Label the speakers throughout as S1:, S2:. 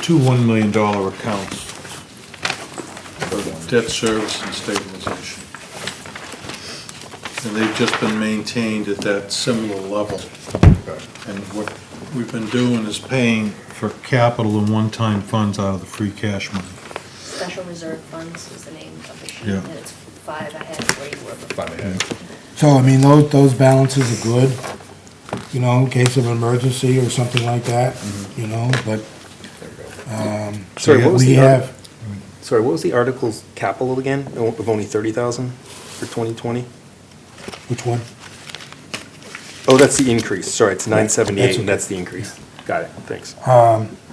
S1: two $1 million accounts for debt service and stabilization. And they've just been maintained at that similar level. And what we've been doing is paying for capital and one-time funds out of the free cash money.
S2: Special Reserve Funds is the name of the sheet,
S1: Yeah.
S2: and it's five ahead where you were before.
S3: Five ahead.
S4: So, I mean, those, those balances are good, you know, in case of emergency or something like that, you know, but, um,
S5: Sorry, what was
S4: we
S5: the other-
S4: have,
S5: Sorry, what was the article's capital again, Oh, of only 30,000 for 2020?
S4: which one?
S5: Oh, that's the increase, sorry, it's 978,
S4: That's okay.
S5: and that's the increase. Got it, thanks.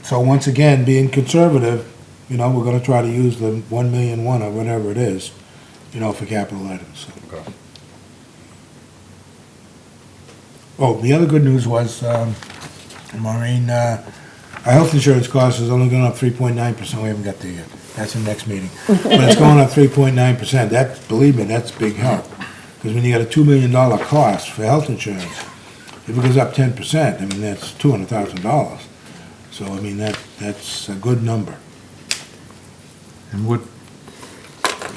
S4: So once again, being conservative, you know, we're gonna try to use the one million one or whatever it is, you know, for capital items. so.
S3: Okay.
S4: Oh, the other good news was, um, Maureen, uh, our health insurance cost is only going up three point nine percent. We haven't got there yet. That's in next meeting. But it's going up three point nine percent. That, believe me, that's big help. Because when you got a two million dollar cost for health insurance, if it goes up ten percent, I mean, that's two hundred thousand dollars. So, I mean, that, that's a good number.
S1: And what,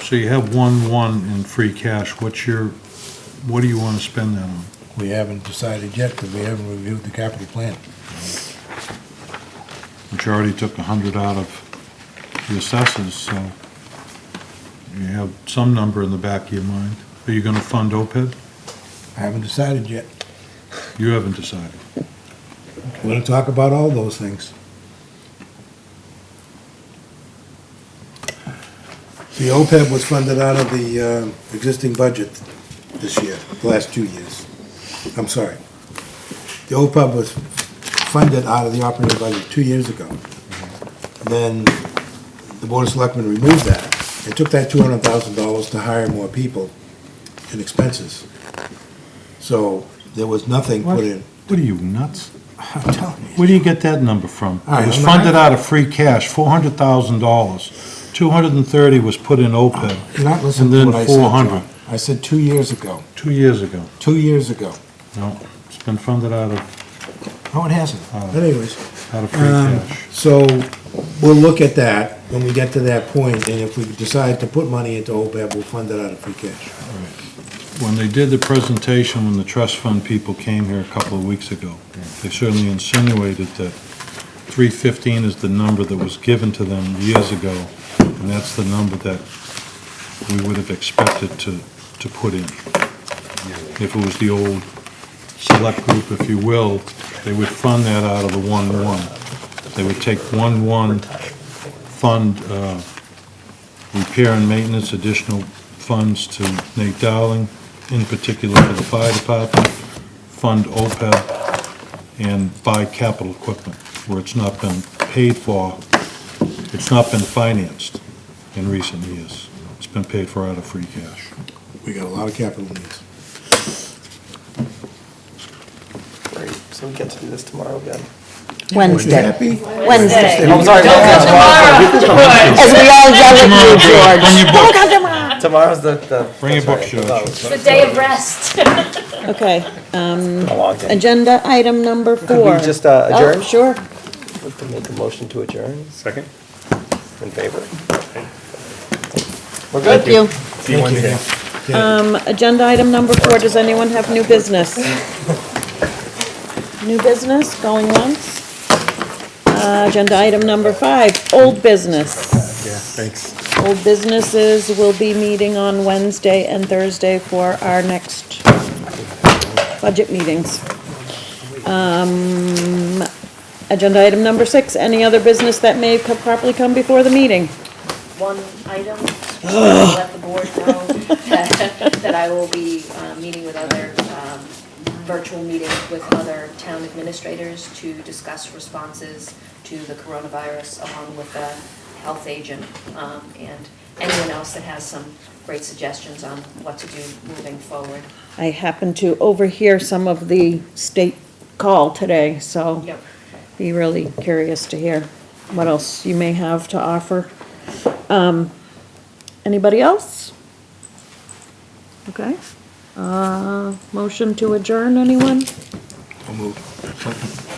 S1: so you have one, one in free cash, what's your, what do you want to spend that on?
S4: We haven't decided yet because we haven't reviewed the capital plan.
S1: Which you already took a hundred out of the assessors, so you have some number in the back of your mind. Are you going to fund OPEB?
S4: I haven't decided yet.
S1: You haven't decided.
S4: We're going to talk about all those things. The OPEB was funded out of the uh, existing budget this year, the last two years. I'm sorry. The OPEB was funded out of the operating budget two years ago. Then the Board of Selectmen removed that. They took that $200,000 to hire more people and expenses. So there was nothing put in.
S1: What are you, nuts?
S4: I'm telling you.
S1: Where do you get that number from?
S4: All right,
S1: It was
S4: I'm not-
S1: funded out of free cash, four hundred thousand dollars. Two hundred and thirty was put in OPEB
S4: You're not listening
S1: And
S4: to
S1: then
S4: what I said,
S1: 400.
S4: John. I said two years ago,
S1: two years ago.
S4: two years ago.
S1: No, it's been funded out of,
S4: No, it hasn't.
S1: Oh.
S4: But Anyways,
S1: out of free
S4: um,
S1: cash.
S4: so we'll look at that when we get to that point, and if we decide to put money into OPEB, we'll fund it out of free cash.
S1: When they did the presentation, when the trust fund people came here a couple of weeks ago, they certainly insinuated that three fifteen is the number that was given to them years ago, and that's the number that we would have expected to, to put in. If it was the old select group, if you will, they would fund that out of the one-one. They would take one-one, fund, uh, repair and maintenance, additional funds to Nate Dowling, in particular for the fire department, fund OPEB, and buy capital equipment where it's not been paid for, it's not been financed in recent years. It's been paid for out of free cash.
S4: We got a lot of capital needs.
S6: Great, so we get to do this tomorrow again.
S7: Wednesday,
S4: Happy?
S7: Wednesday.
S6: I'm sorry,
S7: As we all yell at you, George.
S1: Bring your book,
S6: tomorrow's the, the.
S1: bring your book,
S6: that's all right. Oh,
S1: George.
S2: It's the day of rest.
S7: Okay, um,
S6: A long day.
S7: agenda item number four.
S6: just, uh,
S7: Oh,
S6: adjourn?
S7: Sure.
S6: To Make a motion to adjourn,
S3: Second?
S6: in favor? We're good.
S7: Thank you.
S3: See you Wednesday.
S7: Um, agenda item number four, does anyone have new business? New business, going once? Uh, agenda item number five, old business.
S3: Yeah, thanks.
S7: Old businesses will be meeting on Wednesday and Thursday for our next budget meetings. Um, Agenda item number six, any other business that may co- properly come before the meeting?
S2: One item, I'll let the board know that that I will be uh, meeting with other, um, virtual meetings with other town administrators to discuss responses to the coronavirus along with the health agent um, and anyone else that has some great suggestions on what to do moving forward.
S7: I happened to overhear some of the state call today, so
S2: Yep.
S7: be really curious to hear what else you may have to offer. Um, Anybody else? Okay. Uh, Motion to adjourn, anyone?
S4: I'll move.